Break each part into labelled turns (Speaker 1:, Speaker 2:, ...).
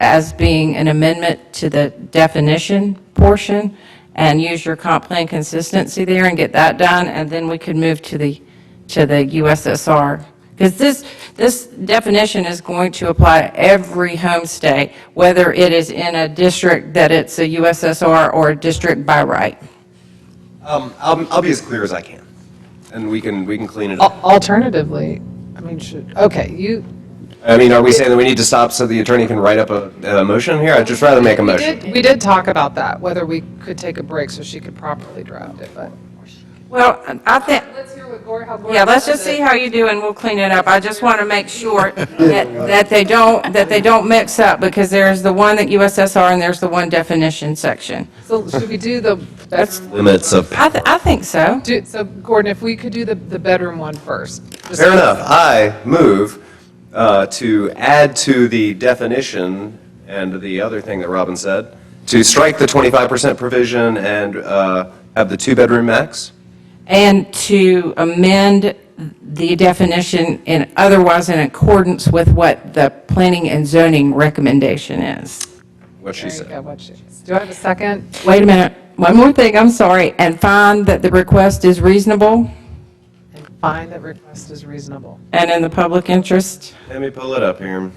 Speaker 1: as being an amendment to the definition portion and use your comp plan consistency there and get that done, and then we could move to the, to the USSR. Because this, this definition is going to apply to every homestay, whether it is in a district that it's a USSR or a district by right.
Speaker 2: Um, I'll, I'll be as clear as I can, and we can, we can clean it up.
Speaker 3: Al- Alternatively, I mean, should, okay, you,
Speaker 2: I mean, are we saying that we need to stop so the attorney can write up a, a motion here? I'd just rather make a
Speaker 3: we
Speaker 2: motion.
Speaker 3: did, we did talk about that, whether we could take a break so she could properly draft it, but.
Speaker 1: Well, I think,
Speaker 3: Let's hear what Gloria, how
Speaker 1: Yeah, let's just see how you do, and we'll clean it up. I just want to make sure that, that they don't, that they don't mix up, because there's the one that USSR and there's the one definition section.
Speaker 3: So should we do the bedroom?
Speaker 2: Limits of,
Speaker 1: I, th- I think so.
Speaker 3: Do, so Gordon, if we could do the, the bedroom one first. just-
Speaker 2: fair enough. I move, uh, to add to the definition and the other thing that Robin said, to strike the 25% provision and, uh, have the two-bedroom max.
Speaker 1: And to amend the definition in otherwise in accordance with what the planning and zoning recommendation is.
Speaker 2: what she
Speaker 3: There you go,
Speaker 2: said.
Speaker 3: what she- Do I have a second?
Speaker 1: Wait a minute, one more thing, I'm sorry, and find that the request is reasonable
Speaker 3: And Find that request is reasonable.
Speaker 1: and in the public interest.
Speaker 2: Let me pull it up here.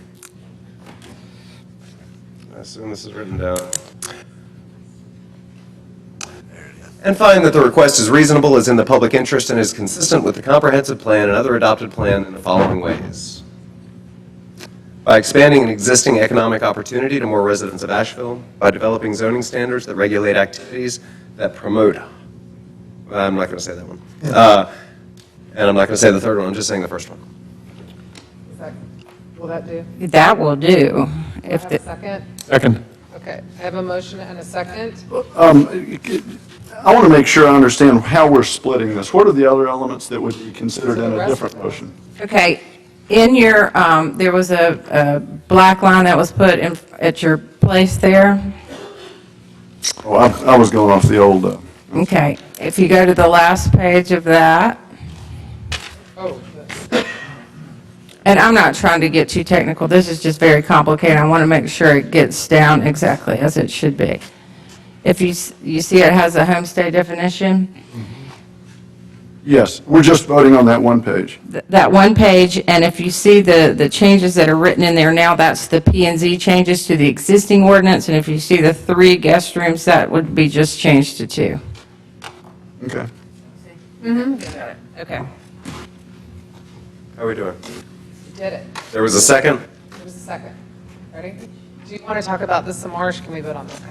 Speaker 2: I assume this is written down. And find that the request is reasonable, is in the public interest, and is consistent with the comprehensive plan and other adopted plan in the following ways. By expanding an existing economic opportunity to more residents of Asheville, by developing zoning standards that regulate activities that promote, I'm not going to say that one. Uh, And I'm not going to say the third one, I'm just saying the first one.
Speaker 3: Is that- Will that do?
Speaker 1: That will do.
Speaker 3: Do I
Speaker 1: If
Speaker 3: have
Speaker 1: the-
Speaker 3: a second?
Speaker 4: Second.
Speaker 3: Okay, I have a motion and a second.
Speaker 4: I want to make sure I understand how we're splitting this. What are the other elements that would be considered in a different motion?
Speaker 1: Okay, in your, um, there was a, a black line that was put in, at your place there.
Speaker 4: Oh, I I was going off the old, uh,
Speaker 1: Okay, if you go to the last page of that,
Speaker 3: Oh,
Speaker 1: and I'm not trying to get too technical, this is just very complicated. I want to make sure it gets down exactly as it should be. If you, s- you see it has a homestay definition?
Speaker 4: yes, we're just voting on that one page.
Speaker 1: th- that one page, and if you see the, the changes that are written in there now, that's the P and Z changes to the existing ordinance, and if you see the three guest rooms, that would be just changed to two.
Speaker 4: Okay.
Speaker 1: Okay.
Speaker 2: How are we doing?
Speaker 3: you did it.
Speaker 2: There was a second?
Speaker 3: There's a second. Ready? Do you want to talk about this some more, or can we vote on this one?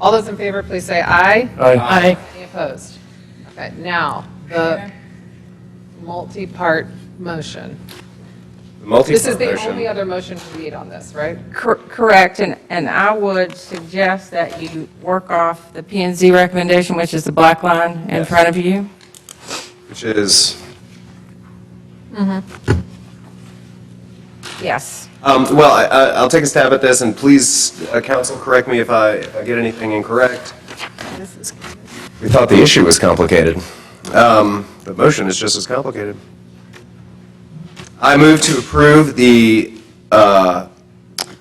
Speaker 3: All those in favor, please say aye.
Speaker 1: Aye.
Speaker 3: Any opposed? Okay, now, the multi-part motion.
Speaker 2: The multi
Speaker 3: This is the only other motion we need on this, right?
Speaker 1: Cor- Correct, and, and I would suggest that you work off the P and Z recommendation, which is the black line in front of you.
Speaker 2: Which is,
Speaker 1: Yes.
Speaker 2: um, well, I- I- I'll take a stab at this, and please, uh, counsel, correct me if I if I get anything incorrect. We thought the issue was complicated. Um, The motion is just as complicated. I move to approve the uh,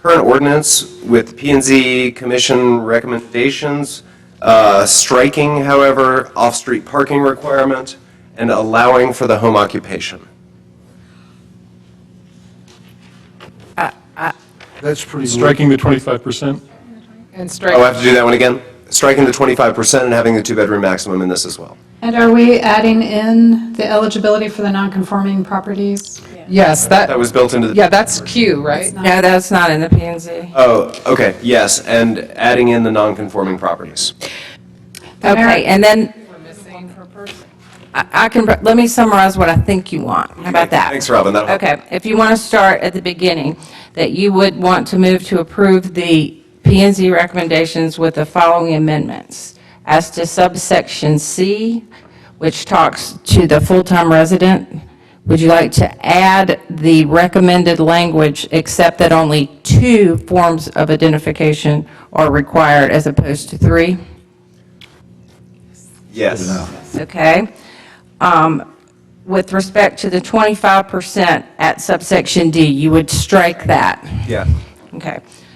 Speaker 2: current ordinance with p and Z Commission recommendations, uh, striking, however, off-street parking requirement and allowing for the home occupation.
Speaker 4: That's pretty.
Speaker 5: Striking the
Speaker 2: Oh,
Speaker 3: And
Speaker 5: 25%?
Speaker 2: I have
Speaker 3: strike,
Speaker 2: to do that one again? Striking the 25% and having the two-bedroom maximum in this as well.
Speaker 6: And are we adding in the eligibility for the non-conforming properties?
Speaker 3: yes, that,
Speaker 2: That was built into the...
Speaker 3: yeah, that's Q, right?
Speaker 1: No, that's not in the P and Z.
Speaker 2: Oh, okay, yes, and adding in the non-conforming properties.
Speaker 1: Okay, and then,
Speaker 3: We're missing
Speaker 1: I I can, let me summarize what I think you want. How about that?
Speaker 2: Thanks, Robin, that'll help.
Speaker 1: Okay, if you want to start at the beginning, that you would want to move to approve the p and Z recommendations with the following amendments. As to subsection C, which talks to the full-time resident, would you like to add the recommended language, except that only two forms of identification are required as opposed to three?
Speaker 2: Yes.
Speaker 1: okay? Um, With respect to the 25% at subsection D, you would strike that,
Speaker 2: Yeah.
Speaker 1: okay?